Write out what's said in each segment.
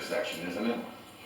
intersection, isn't it?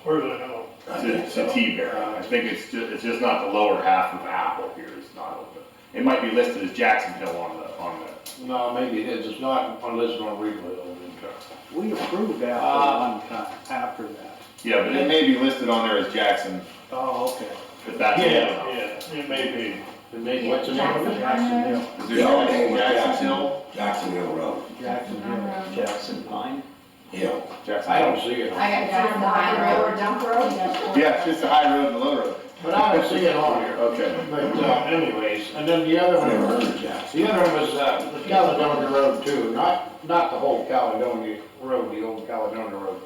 Where's that hole? It's a- It's a T-Berry. I think it's just, it's just not the lower half of Apple here, it's not open. It might be listed as Jacksonville on the, on the, No, maybe it is, it's not unless it's on replay on the truck. We approved that Ah. one time after that. yeah, but it may be listed on there as Jackson, Oh, okay. if that's. Yeah, yeah, it may The name, what's the name of it? Jacksonville, Is there Yeah, a I think it was Jackson Hill? Jacksonville Road, Jacksonville, Jackson Pine. yeah. Jackson I don't Hill. see it. I got down the high road, dump road, that's what. Yeah, it's just the high road and the low road. But I don't see it on here. Okay. But uh, anyways, and then the other I never heard one, of Jackson. the other one was uh, the Caledonia Road too, not, not the whole Caledonia Road, the old Caledonia Road.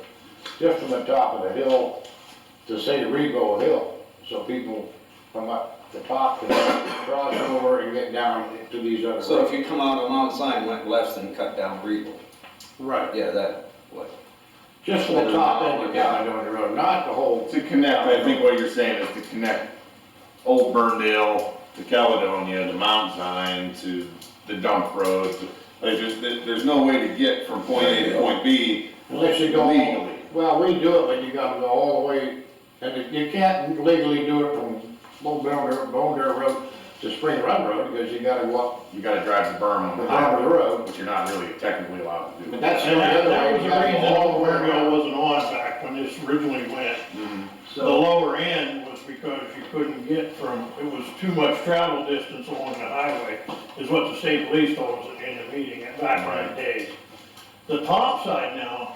Just from the top of the hill to St. Rego Hill, so people from up the top can cross over and get down to these other So if roads. you come out on Mount Zion, went left and cut down Regal, Right. yeah, that, what? Just from the top end of Caledonia Road, not the whole, To connect, I think what you're saying is to connect Old Burndale to Caledonia to Mount Zion to the dump road. Like, there's, there's no way to get from point A to point B unless you go all legally. Well, we do it, but you gotta go all the way, and if- you can't legally do it from Little Bone Bear, Bone Bear Road to Spring Run Road, because you gotta walk You gotta drive the berm on the the bottom of highway, the road. which you're not really technically allowed to do. But that's be. the only And that, other that way, was you the gotta reason go all the way Oldville around. wasn't on back when this originally went. Mhm. The So, lower end was because you couldn't get from, it was too much travel distance along the highway, is what the state police told us in the meeting at back in the days. The top side now,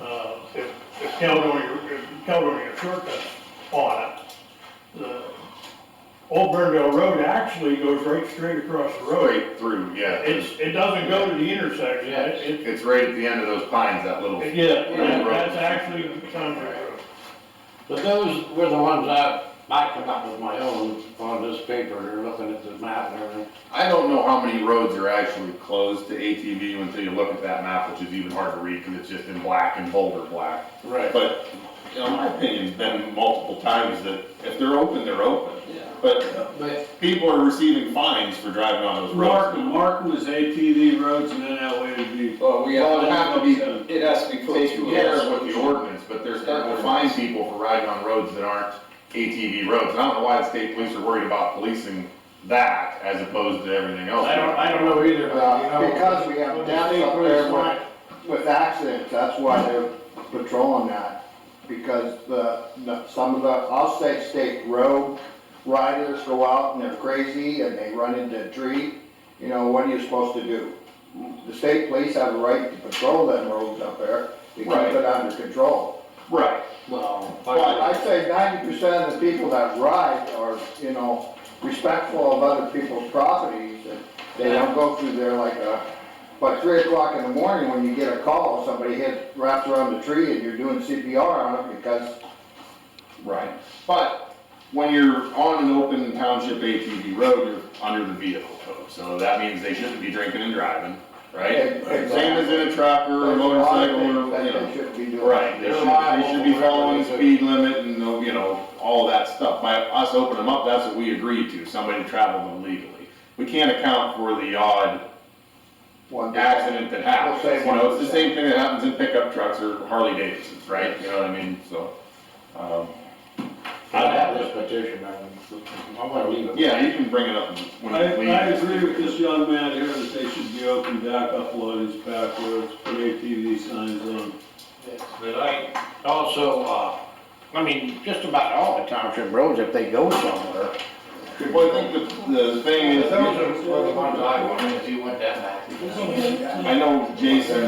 uh, if, if Caledonia, if Caledonia shortcuts on it, the Old Burndale Road actually goes right straight across the road. Straight through, yeah. It's, it doesn't go to the intersection, it, It's right at the end of those pines, that little. it, yeah, that- Road. that's actually Conway Road. but those were the ones I, I come up with my own on this paper, or looking at the map and everything. I don't know how many roads are actually closed to ATV until you look at that map, which is even hard to read because it's just in black and bolder black. Right. But, in my opinion, it's been multiple times that if they're open, they're open. Yeah. But But people are receiving fines for driving on those roads. Mark, Mark was ATV roads and then that way would be. Well, we Well, have, it'd have to be it has to be put taken to care a of with the ordinance, but they're starting to fine people for riding on roads that aren't ATV roads. And I don't know why the state police are worried about policing that as opposed to everything else. I don't, I don't know either, but you know. Uh, Because we have when the deaths state up police there want- with, with accidents, that's why they're patrolling that. Because the, the, some of the, I'll say state road riders go out and they're crazy and they run into a tree. You know, what are you supposed to do? The state police have a right to patrol them roads up there to keep Right. it under control. Right. Well, But I say ninety percent of the people that ride are, you know, respectful of other people's properties, and they don't go through there like a, but three o'clock in the morning, when you get a call, somebody hit, wraps around the tree, and you're doing CPR on it because Right, but when you're on an open township ATV road, you're under the vehicle code, so that means they shouldn't be drinking and driving, right? Exactly. Same as in a truck or a there's a lot of motorcycle things or, you that they know, shouldn't be doing. right, they They're should, they should be liable. following the speed limit and, uh, you know, all that stuff. By us opening them up, that's what we agreed to, somebody traveled illegally. We can't account for the odd One day. accident that happens, We'll say you know, it's the 1%. same thing that happens in pickup trucks or Harley Davidsons, right? You know what I mean, so, um, I have this petition, I'm, I'm gonna leave it. Yeah, you can bring it up when I, you leave. I agree with this young man here that they should be open back up loadings, back roads, put ATV signs on. But I also, uh, I mean, just about all the township roads, if they go somewhere. Well, I think the, the thing is, I know Jason,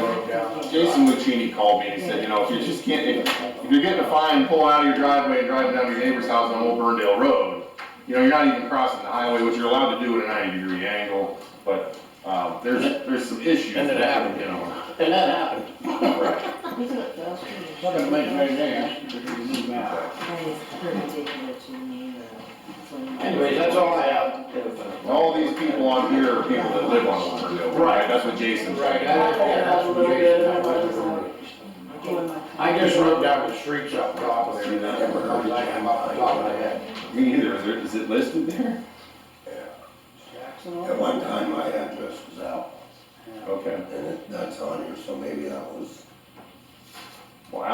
Jason Lucchini called me and he said, you know, if you just can't, if, if you're getting a fine, pulling out of your driveway and driving down to your neighbor's house on Old Burndale Road, you know, you're not even crossing the highway, which you're allowed to do at a ninety degree angle, but, um, there's, there's some issues. And it that, happened. You know, And that happened. right, Look at the man right there. Anyways, that's all I have. all these people on here are people that live on Old Burndale, Road, right, that's what Jason Right, said. I- I just wrote down the streets off the top of there, and that ever comes like I'm off the top of my head. Me either, is there, is it listed there? At one time, my address was out, Okay. and it- that's on here, so maybe that was